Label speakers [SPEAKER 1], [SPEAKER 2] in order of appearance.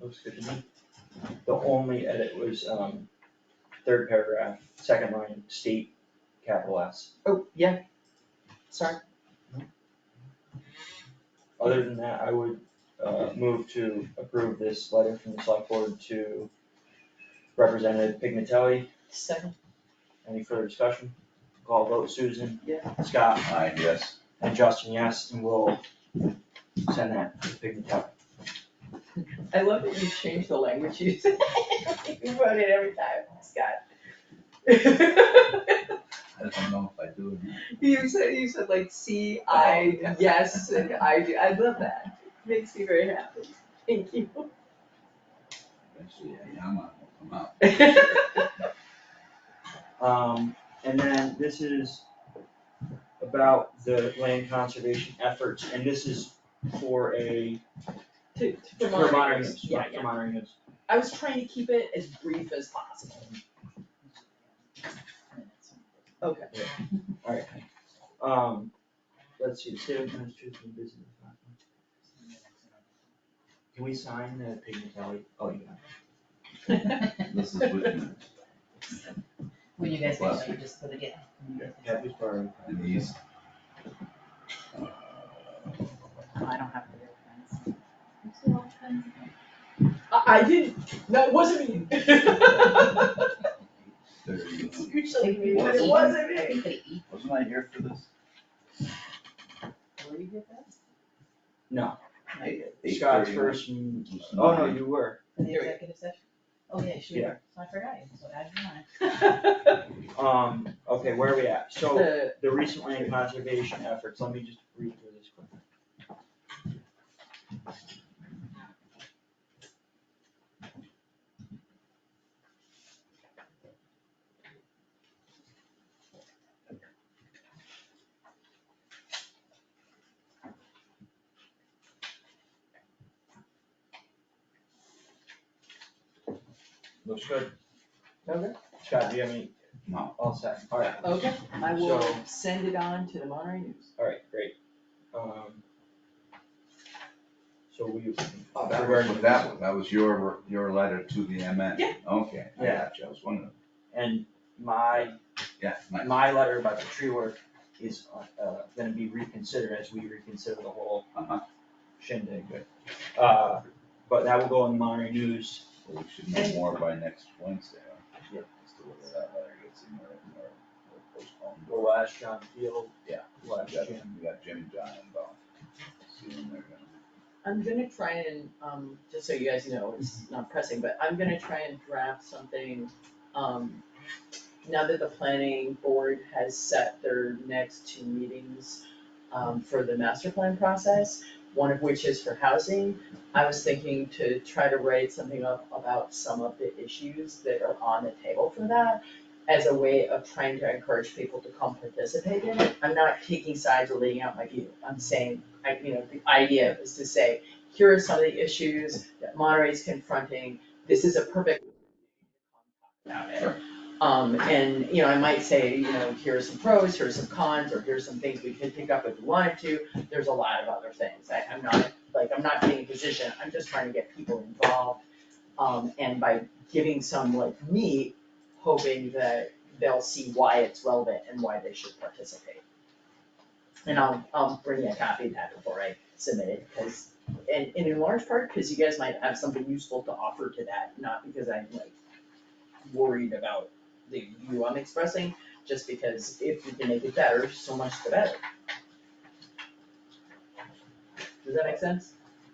[SPEAKER 1] Looks good to me. The only edit was, um, third paragraph, second line, state, capital S.
[SPEAKER 2] Oh, yeah, sorry,
[SPEAKER 1] Other than that, I would, uh, move to approve this letter from the select board to Representative Pignatelli.
[SPEAKER 2] second,
[SPEAKER 1] Any further discussion? Call vote Susan.
[SPEAKER 2] Yeah.
[SPEAKER 1] Scott
[SPEAKER 3] Aye, yes.
[SPEAKER 1] and Justin, yes, and we'll send that to Pignatelli.
[SPEAKER 2] I love that you changed the language you said, you wrote it every time, Oh Scott.
[SPEAKER 3] I don't know if I do. or not.
[SPEAKER 2] You said, you said like C,
[SPEAKER 1] Oh,
[SPEAKER 2] I, yes, and I do, I love that, makes me very happy, thank you.
[SPEAKER 3] Eventually, a Yama will come out.
[SPEAKER 1] Um, and then this is about the land conservation efforts, and this is for a,
[SPEAKER 2] To, to
[SPEAKER 1] for
[SPEAKER 2] Vermont,
[SPEAKER 1] monitoring use,
[SPEAKER 2] yeah,
[SPEAKER 1] right, for
[SPEAKER 2] yeah,
[SPEAKER 1] monitoring use.
[SPEAKER 2] I was trying to keep it as brief as possible. Okay.
[SPEAKER 1] Alright, um, let's see, state of Massachusetts business. Can we sign the Pignatelli, oh, yeah.
[SPEAKER 3] This is Whitman,
[SPEAKER 4] When you guys
[SPEAKER 3] Last
[SPEAKER 4] finish, you
[SPEAKER 3] week.
[SPEAKER 4] just put it in.
[SPEAKER 1] Kathy's borrowing.
[SPEAKER 3] and he's.
[SPEAKER 4] Oh, I don't have the real plans.
[SPEAKER 2] I, I didn't, no, it wasn't me.
[SPEAKER 3] Wasn't
[SPEAKER 4] Usually
[SPEAKER 2] we-
[SPEAKER 3] But it
[SPEAKER 2] wasn't me.
[SPEAKER 4] me.
[SPEAKER 3] I here for this?
[SPEAKER 4] Were you here for that?
[SPEAKER 1] No,
[SPEAKER 3] Eight-
[SPEAKER 1] Scott's
[SPEAKER 3] 8:31.
[SPEAKER 1] first, mm,
[SPEAKER 3] It was
[SPEAKER 1] oh, no,
[SPEAKER 3] nine.
[SPEAKER 1] you were,
[SPEAKER 4] For the
[SPEAKER 2] Here we go.
[SPEAKER 4] executive session? Oh, yeah,
[SPEAKER 1] Yeah.
[SPEAKER 4] sure, so I forgot, you, so add your line.
[SPEAKER 1] um, okay, where are we at? So.
[SPEAKER 2] The-
[SPEAKER 1] the recent land conservation efforts, let me just read through this quick. Looks good.
[SPEAKER 2] Okay.
[SPEAKER 1] Scott, do you have any,
[SPEAKER 3] No,
[SPEAKER 1] all set, alright.
[SPEAKER 2] Okay, I will
[SPEAKER 1] So-
[SPEAKER 2] send it on to the Monterey News.
[SPEAKER 1] Alright, great. Um. So we.
[SPEAKER 3] oh, that was, what that was, that was your, your letter to the MN.
[SPEAKER 2] Yeah.
[SPEAKER 3] Okay, I
[SPEAKER 1] Yeah.
[SPEAKER 3] got you, I was wondering,
[SPEAKER 1] And my,
[SPEAKER 3] yeah, nice.
[SPEAKER 1] my letter about the tree work is, uh, uh, gonna be reconsidered as we reconsider the whole
[SPEAKER 3] Uh-huh.
[SPEAKER 1] shindig, but, uh, but that will go in the Monterey News.
[SPEAKER 3] Well, we should know more by next Wednesday, huh?
[SPEAKER 1] Yeah.
[SPEAKER 3] As to whether that letter gets in there or or postponed.
[SPEAKER 1] The last John Field.
[SPEAKER 3] Yeah.
[SPEAKER 1] Last
[SPEAKER 3] We got,
[SPEAKER 1] Jim.
[SPEAKER 3] we got Jim and John involved. See when they're gonna.
[SPEAKER 2] I'm gonna try and, um, just so you guys know, it's not pressing, but I'm gonna try and draft something, um, now that the planning board has set their next two meetings, um, for the master plan process, one of which is for housing, I was thinking to try to write something up about some of the issues that are on the table for that as a way of trying to encourage people to come participate in it. I'm not taking sides or laying out my view, I'm saying, I, you know, the idea is to say, here are some of the issues that Monterey's confronting, this is a perfect. About it.
[SPEAKER 3] Sure.
[SPEAKER 2] Um, and, you know, I might say, you know, here are some pros, here are some cons, or here's some things we could pick up if we wanted to, there's a lot of other things, I, I'm not, like, I'm not being a position, I'm just trying to get people involved. Um, and by giving some like me, hoping that they'll see why it's relevant and why they should participate. And I'll, I'll bring you a copy of that before I submit it, because and, and in large part, cause you guys might have something useful to offer to that, not because I'm like worried about the view I'm expressing, just because if we can make it better, so much the better. Does that make sense?